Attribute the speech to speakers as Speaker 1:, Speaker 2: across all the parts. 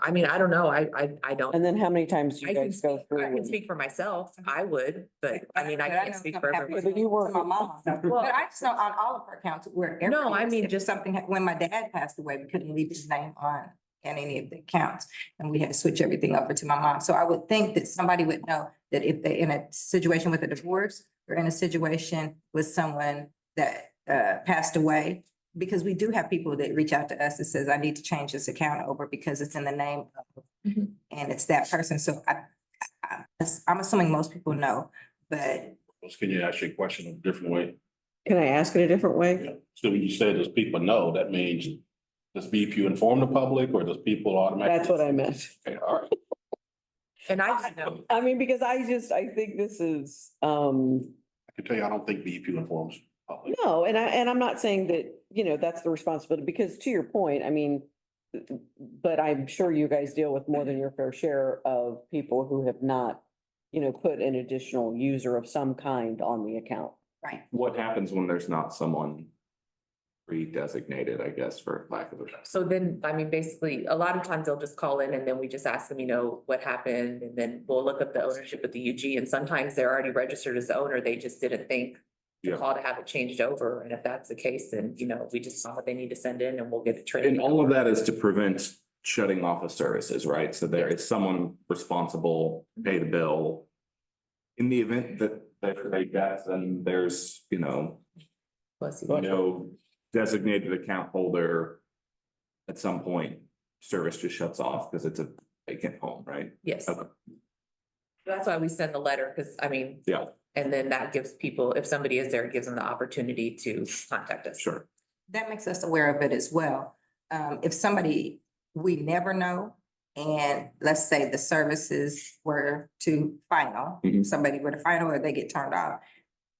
Speaker 1: I mean, I don't know, I, I, I don't.
Speaker 2: And then how many times do
Speaker 1: I
Speaker 2: you
Speaker 1: can
Speaker 2: guys go
Speaker 1: speak, I
Speaker 2: through?
Speaker 1: can
Speaker 2: and-
Speaker 1: speak for myself, I would, but I mean, I
Speaker 3: But
Speaker 1: can't
Speaker 3: know
Speaker 1: speak
Speaker 3: some
Speaker 1: for everyone.
Speaker 3: happens
Speaker 2: everyone. But you
Speaker 3: to
Speaker 2: were-
Speaker 3: My mom, but
Speaker 1: Well,
Speaker 3: I just know on all of our accounts, where.
Speaker 1: No, I
Speaker 3: everything-
Speaker 1: mean,
Speaker 3: if
Speaker 1: just-
Speaker 3: Something, hap- when my dad passed away, we couldn't leave his name on, in any of the accounts, and we had to switch everything over to my mom, so I would think that somebody would know that if they're in a situation with a divorce, or in a situation with someone that, uh, passed away, because we do have people that reach out to us that says, I need to change this account over because it's in the name of,
Speaker 1: Mhm.
Speaker 3: and it's that person, so I, I, I'm assuming most people know, but
Speaker 4: Well, Can you ask your question a different way?
Speaker 2: Can I ask it a different way?
Speaker 4: So when you say does people know, that means does BPU inform the public or does people automatically?
Speaker 2: That's what I meant.
Speaker 4: Okay, all right.
Speaker 1: And I just know,
Speaker 2: I mean, because I just, I think this is, um,
Speaker 4: I can tell you, I don't think BPU informs the public.
Speaker 2: no, and I, and I'm not saying that, you know, that's the responsibility, because to your point, I mean, but I'm sure you guys deal with more than your fair share of people who have not, you know, put an additional user of some kind on the account.
Speaker 3: Right.
Speaker 5: What happens when there's not someone pre-designated, I guess, for lack of a.
Speaker 1: so then, I mean, basically, a lot of times they'll just call in and then we just ask them, you know, what happened? And then we'll look up the ownership of the UG and sometimes they're already registered as the owner, they just didn't think to
Speaker 5: Yeah.
Speaker 1: call to have it changed over. And if that's the case, then, you know, we just saw what they need to send in and we'll get it traded.
Speaker 5: And all of that is to prevent shutting off of services, right? So there is someone responsible, pay the bill. In the event that that they get, then there's, you know,
Speaker 1: Bless you.
Speaker 5: no designated account holder. At some point, service just shuts off because it's a vacant home, right?
Speaker 1: Yes.
Speaker 5: Okay.
Speaker 1: That's why we send the letter, because I mean.
Speaker 5: Yeah.
Speaker 1: And then that gives people, if somebody is there, it gives them the opportunity to contact us.
Speaker 5: Sure.
Speaker 3: that makes us aware of it as well. Um, if somebody we never know, and let's say the services were to final,
Speaker 5: Mhm.
Speaker 3: somebody were to final or they get turned off.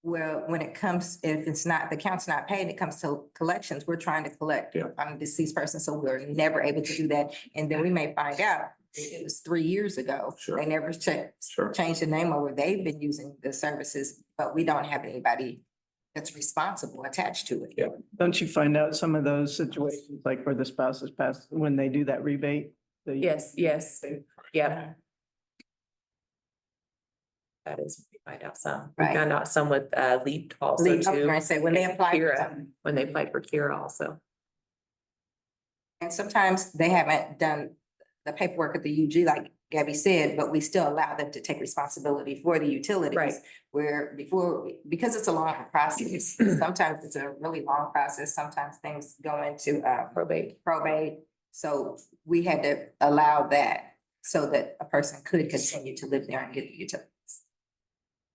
Speaker 3: Well, when it comes, if it's not, the account's not paid, it comes to collections, we're trying to collect
Speaker 5: Yeah.
Speaker 3: on a deceased person, so we're never able to do that. And then we may find out it was three years ago.
Speaker 5: Sure.
Speaker 3: They never checked,
Speaker 5: Sure.
Speaker 3: change the name over, they've been using the services, but we don't have anybody that's responsible attached to it.
Speaker 5: Yeah.
Speaker 6: Don't you find out some of those situations, like where the spouse has passed, when they do that rebate? the-
Speaker 1: Yes, yes, yeah, that is, we find out some. We
Speaker 3: Right.
Speaker 1: found out some with uh Leap also
Speaker 3: Leave- I was
Speaker 1: too,
Speaker 3: gonna say, when they apply for
Speaker 1: Kira.
Speaker 3: something.
Speaker 1: when they applied for Kira also.
Speaker 3: And sometimes they haven't done the paperwork at the UG, like Gabby said, but we still allow them to take responsibility for the utilities.
Speaker 1: Right.
Speaker 3: Where before, because it's a long process, sometimes it's a really long process, sometimes things go into uh
Speaker 1: Probate.
Speaker 3: probate. So we had to allow that so that a person could continue to live there and get the utilities.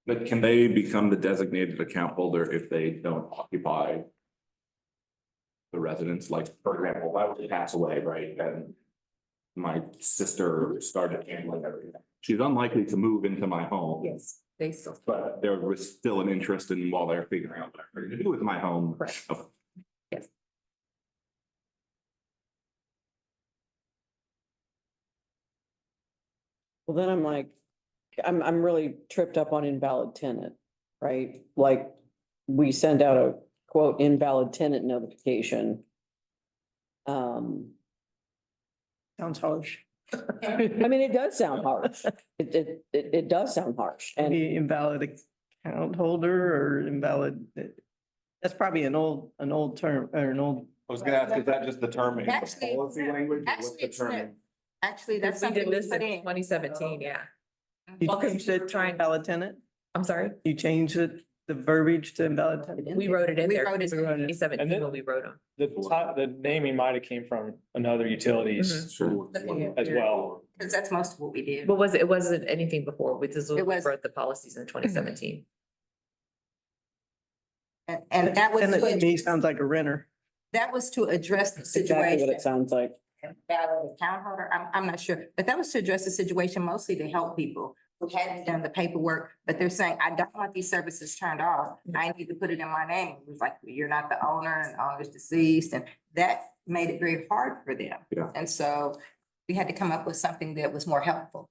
Speaker 5: But can they become the designated account holder if they don't occupy? The residence, like, for example, if I were to pass away, right, and. My sister started handling everything. She's unlikely to move into my home,
Speaker 1: Yes, they still,
Speaker 5: but there was still an interest in while they're figuring out what I'm going to do with my home.
Speaker 1: correct.
Speaker 5: Oh.
Speaker 1: Yes.
Speaker 2: Well, then I'm like, I'm, I'm really tripped up on invalid tenant, right? Like, we send out a quote invalid tenant notification. Um,
Speaker 6: Sounds harsh.
Speaker 2: I mean, it does sound harsh. It, it, it, it does sound harsh and
Speaker 6: Any invalid account holder or invalid. That's probably an old, an old term or an old.
Speaker 5: I was gonna ask, is that just the term? in the
Speaker 3: Actually,
Speaker 5: policy language, or what's
Speaker 3: actually,
Speaker 5: the
Speaker 3: it's not.
Speaker 5: term?
Speaker 3: Actually, that's
Speaker 1: Because we
Speaker 3: something
Speaker 1: did
Speaker 3: we
Speaker 1: this
Speaker 3: put
Speaker 1: in
Speaker 3: in.
Speaker 1: twenty seventeen, yeah.
Speaker 6: You
Speaker 1: Well, 'cause
Speaker 6: changed it to
Speaker 1: trying-
Speaker 6: invalid tenant?
Speaker 1: I'm sorry,
Speaker 6: You changed it, the verbiage to invalid tenant?
Speaker 1: we wrote it in
Speaker 3: We
Speaker 1: there.
Speaker 3: wrote it in.
Speaker 1: Twenty
Speaker 7: And
Speaker 1: seventeen
Speaker 7: then-
Speaker 1: when we wrote them.
Speaker 7: The top, the naming might have came from another
Speaker 1: Mm-hmm.
Speaker 3: Hmm.
Speaker 7: utilities
Speaker 5: Sure.
Speaker 7: as well.
Speaker 3: Because that's most of what we did.
Speaker 1: But was it, it wasn't anything before, we just we
Speaker 3: It was-
Speaker 1: wrote the policies in twenty seventeen.
Speaker 3: And, and that was,
Speaker 6: Tenant to me
Speaker 3: to-
Speaker 6: sounds like a renter.
Speaker 3: that was to address the
Speaker 2: exactly what
Speaker 3: situation.
Speaker 2: it sounds like.
Speaker 3: Valid account holder, I'm, I'm not sure, but that was to address the situation mostly to help people who hadn't done the paperwork, but they're saying, I don't want these services turned off.
Speaker 2: Mm.
Speaker 3: I need to put it in my name. It was like, you're not the owner and the owner's deceased, and that made it very hard for them.
Speaker 5: Yeah.
Speaker 3: And so we had to come up with something that was more helpful.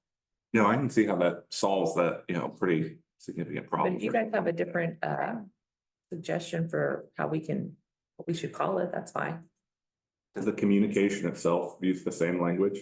Speaker 5: No, I can see how that solves that, you know, pretty significant
Speaker 1: But
Speaker 5: problem.
Speaker 1: if you
Speaker 5: for
Speaker 1: guys have a
Speaker 5: someone.
Speaker 1: different uh suggestion for how we can, what we should call it, that's fine.
Speaker 5: Does the communication itself use the same language?